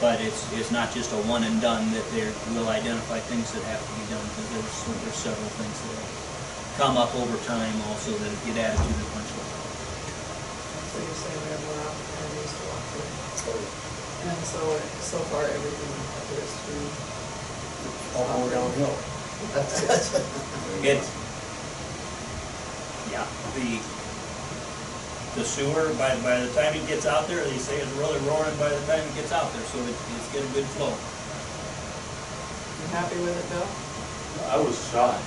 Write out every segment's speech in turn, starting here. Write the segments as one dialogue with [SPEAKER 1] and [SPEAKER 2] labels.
[SPEAKER 1] But it's, it's not just a one and done, that they will identify things that have to be done, because there's, there's several things that have come up over time also that get added to the punch list.
[SPEAKER 2] So you're saying we have more opportunities to walk through. And so, so far, everything appears to be.
[SPEAKER 3] All go downhill.
[SPEAKER 1] It's, yeah, the, the sewer, by, by the time it gets out there, they say it's really roaring by the time it gets out there, so it, it's getting good flow.
[SPEAKER 2] You happy with it, Bill?
[SPEAKER 4] I was shocked.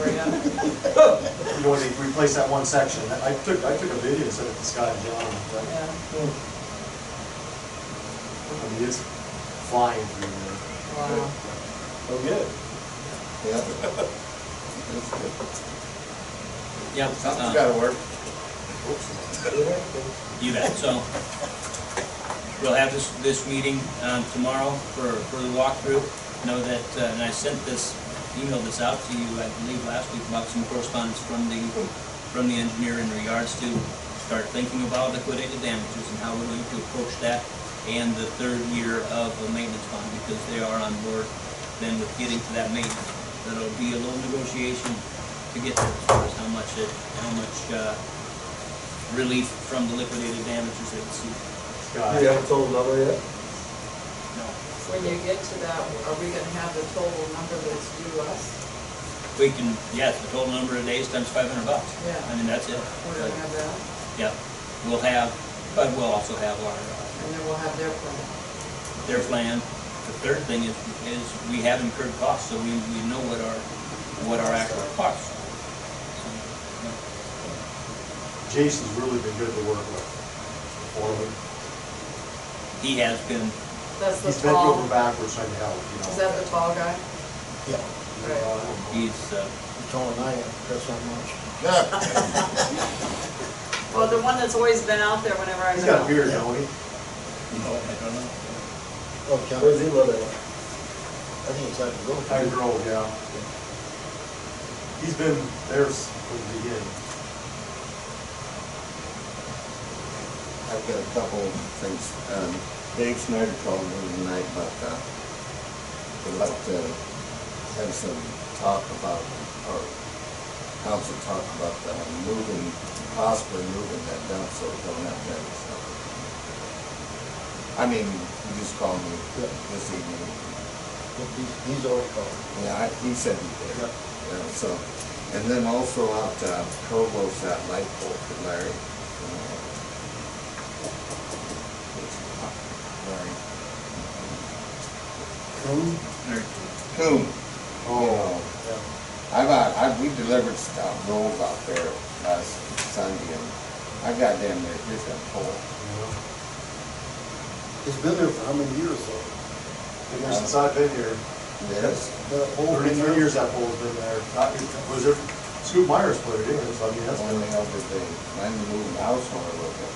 [SPEAKER 2] Where you at?
[SPEAKER 4] You know, when they replaced that one section, I took, I took a video and sent it to Scott and John, but,
[SPEAKER 2] Yeah.
[SPEAKER 4] I mean, it's flying through there.
[SPEAKER 2] Wow.
[SPEAKER 3] Oh, good. Yeah. That's good.
[SPEAKER 1] Yep.
[SPEAKER 3] Something's
[SPEAKER 1] uh,
[SPEAKER 3] gotta work.
[SPEAKER 1] You bet, so we'll have this, this meeting um, tomorrow for, for the walkthrough. Know that, uh, and I sent this, emailed this out to you, I believe, last week about some correspondence from the, from the engineer in regards to start thinking about liquidated damages and how we're going to approach that and the third year of a maintenance bond because they are on board then with getting to that maintenance. That'll be a little negotiation to get there as far as how much it, how much, uh, relief from the liquidated damages they received.
[SPEAKER 4] Scott,
[SPEAKER 3] You haven't told another yet?
[SPEAKER 1] No.
[SPEAKER 2] When you get to that, are we gonna have the total number that's due us?
[SPEAKER 1] We can, yes, the total number of days times five hundred bucks.
[SPEAKER 2] Yeah.
[SPEAKER 1] I mean, that's it.
[SPEAKER 2] We're gonna have that,
[SPEAKER 1] Yep. We'll have, but we'll also have our, uh,
[SPEAKER 2] and then we'll have their plan.
[SPEAKER 1] their plan. The third thing is, is we have incurred costs, so we, we know what our, what our actual costs. are. So,
[SPEAKER 4] Jason's really been good to work with. Foreman,
[SPEAKER 1] yeah. He has been,
[SPEAKER 2] That's the
[SPEAKER 4] he's bent over
[SPEAKER 2] tall,
[SPEAKER 4] backwards trying to help, you know.
[SPEAKER 2] is that the tall guy?
[SPEAKER 5] Yeah,
[SPEAKER 4] You know, I don't know.
[SPEAKER 1] he's, uh,
[SPEAKER 5] you're taller than I am, Chris, not much.
[SPEAKER 2] Well, the one that's always been out there whenever I
[SPEAKER 4] He's
[SPEAKER 2] go.
[SPEAKER 4] got a beard, don't he?
[SPEAKER 1] you know, Oh, I don't know.
[SPEAKER 5] Okay.
[SPEAKER 3] Where's he
[SPEAKER 5] I
[SPEAKER 3] living?
[SPEAKER 5] Oh, think it's like a little.
[SPEAKER 4] Tiger Grove, yeah. He's been there s- from the beginning.
[SPEAKER 5] I've got a couple of things. Um, Dave Snyder called me tonight about, uh, would like to have some talk about, or council talk about uh, moving, possibly moving that dump so we don't have to have it. I mean, he just called me
[SPEAKER 3] Yeah.
[SPEAKER 5] this evening.
[SPEAKER 3] He's, he's already called.
[SPEAKER 5] Yeah, I- he said he did.
[SPEAKER 3] Yep.
[SPEAKER 5] Yeah, so, and then also out uh, Provo's that light pole for Larry. Uh, Larry. Coon?
[SPEAKER 1] Or-
[SPEAKER 5] Coon. Oh. Hmm. I've, out- I've, we delivered stuff, rolls out there last Sunday and I got damn near, here's that pole.
[SPEAKER 4] Yeah.
[SPEAKER 3] He's been there for how many years though?
[SPEAKER 4] Been there since I've been here.
[SPEAKER 5] Yes.
[SPEAKER 3] That whole thing
[SPEAKER 4] Thirty-three
[SPEAKER 3] there?
[SPEAKER 4] years that pole's been there. Not- it Was it, Scoot Myers put it in, so I mean, that's
[SPEAKER 3] Oh,
[SPEAKER 4] been
[SPEAKER 5] Only over the, when we moved the house on a little bit.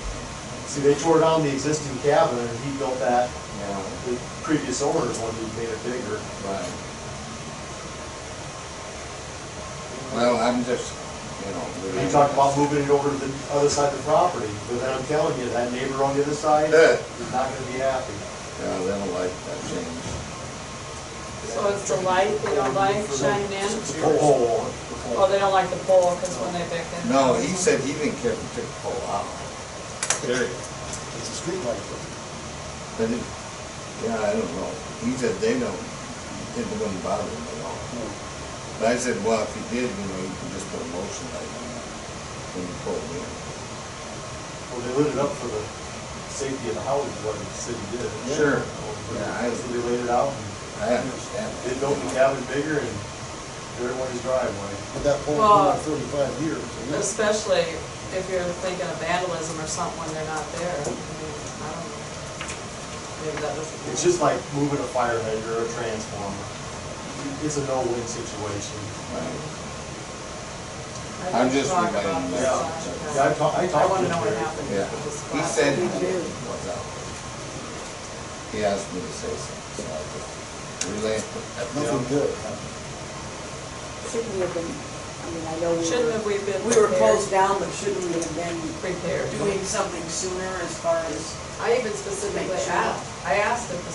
[SPEAKER 4] See, they tore down the existing cabin, and he built that,
[SPEAKER 5] Yeah.
[SPEAKER 4] the previous owners wanted to make it bigger.
[SPEAKER 5] Right. Well, I'm just, you know.
[SPEAKER 4] He talked about moving it over to the other side of the property, but then I'm telling you, that neighbor on the other side
[SPEAKER 5] Yeah.
[SPEAKER 4] is not gonna be happy.
[SPEAKER 5] Yeah, they don't like that change.
[SPEAKER 2] So it's the light they don't like shining
[SPEAKER 4] The
[SPEAKER 2] in?
[SPEAKER 4] pole,
[SPEAKER 2] Oh, they don't like the pole, cause when they back in.
[SPEAKER 5] No, he said he didn't care if it took a whole hour.
[SPEAKER 1] Period.
[SPEAKER 3] It's a street light. though.
[SPEAKER 5] But it, yeah, I don't know. He said they don't, it wouldn't bother him at all. But I said, well, if he did, you know, you can just put a motion light on it when you pull it in.
[SPEAKER 4] well, they lit it up for the safety of the houses, what the city did.
[SPEAKER 5] Sure. Yeah, I-
[SPEAKER 4] Yeah, so they laid it out, and
[SPEAKER 5] I understand.
[SPEAKER 4] they built the cabin bigger and everyone's driveway.
[SPEAKER 3] But that pole's been
[SPEAKER 2] Well-
[SPEAKER 3] there thirty-five years. isn't it?
[SPEAKER 2] Especially if you're thinking of vandalism or something when they're not there. I mean, I don't, maybe that doesn't.
[SPEAKER 4] It's just like moving a fire hydrant or a transformer. It's a no-win situation.
[SPEAKER 5] Right.
[SPEAKER 2] I think
[SPEAKER 5] I'm
[SPEAKER 2] we
[SPEAKER 5] just
[SPEAKER 2] talk about
[SPEAKER 5] reminding
[SPEAKER 2] this,
[SPEAKER 4] Yeah.
[SPEAKER 2] uh,
[SPEAKER 4] Yeah, I talked,
[SPEAKER 2] I
[SPEAKER 4] I talked to
[SPEAKER 2] wanna know what
[SPEAKER 4] him.
[SPEAKER 2] happened.
[SPEAKER 5] Yeah,
[SPEAKER 2] with this
[SPEAKER 5] he
[SPEAKER 2] glass.
[SPEAKER 5] said he was out. He asked me to say something, so I just relayed.
[SPEAKER 3] Nothing good.
[SPEAKER 6] Shouldn't we have been, I mean, I know we
[SPEAKER 2] Shouldn't have
[SPEAKER 6] were,
[SPEAKER 2] we been?
[SPEAKER 6] we were
[SPEAKER 2] prepared-
[SPEAKER 6] closed down, but shouldn't we have been
[SPEAKER 2] Prepared.
[SPEAKER 6] doing something sooner as far as
[SPEAKER 2] I even specifically
[SPEAKER 6] Make sure.
[SPEAKER 2] asked, I asked if the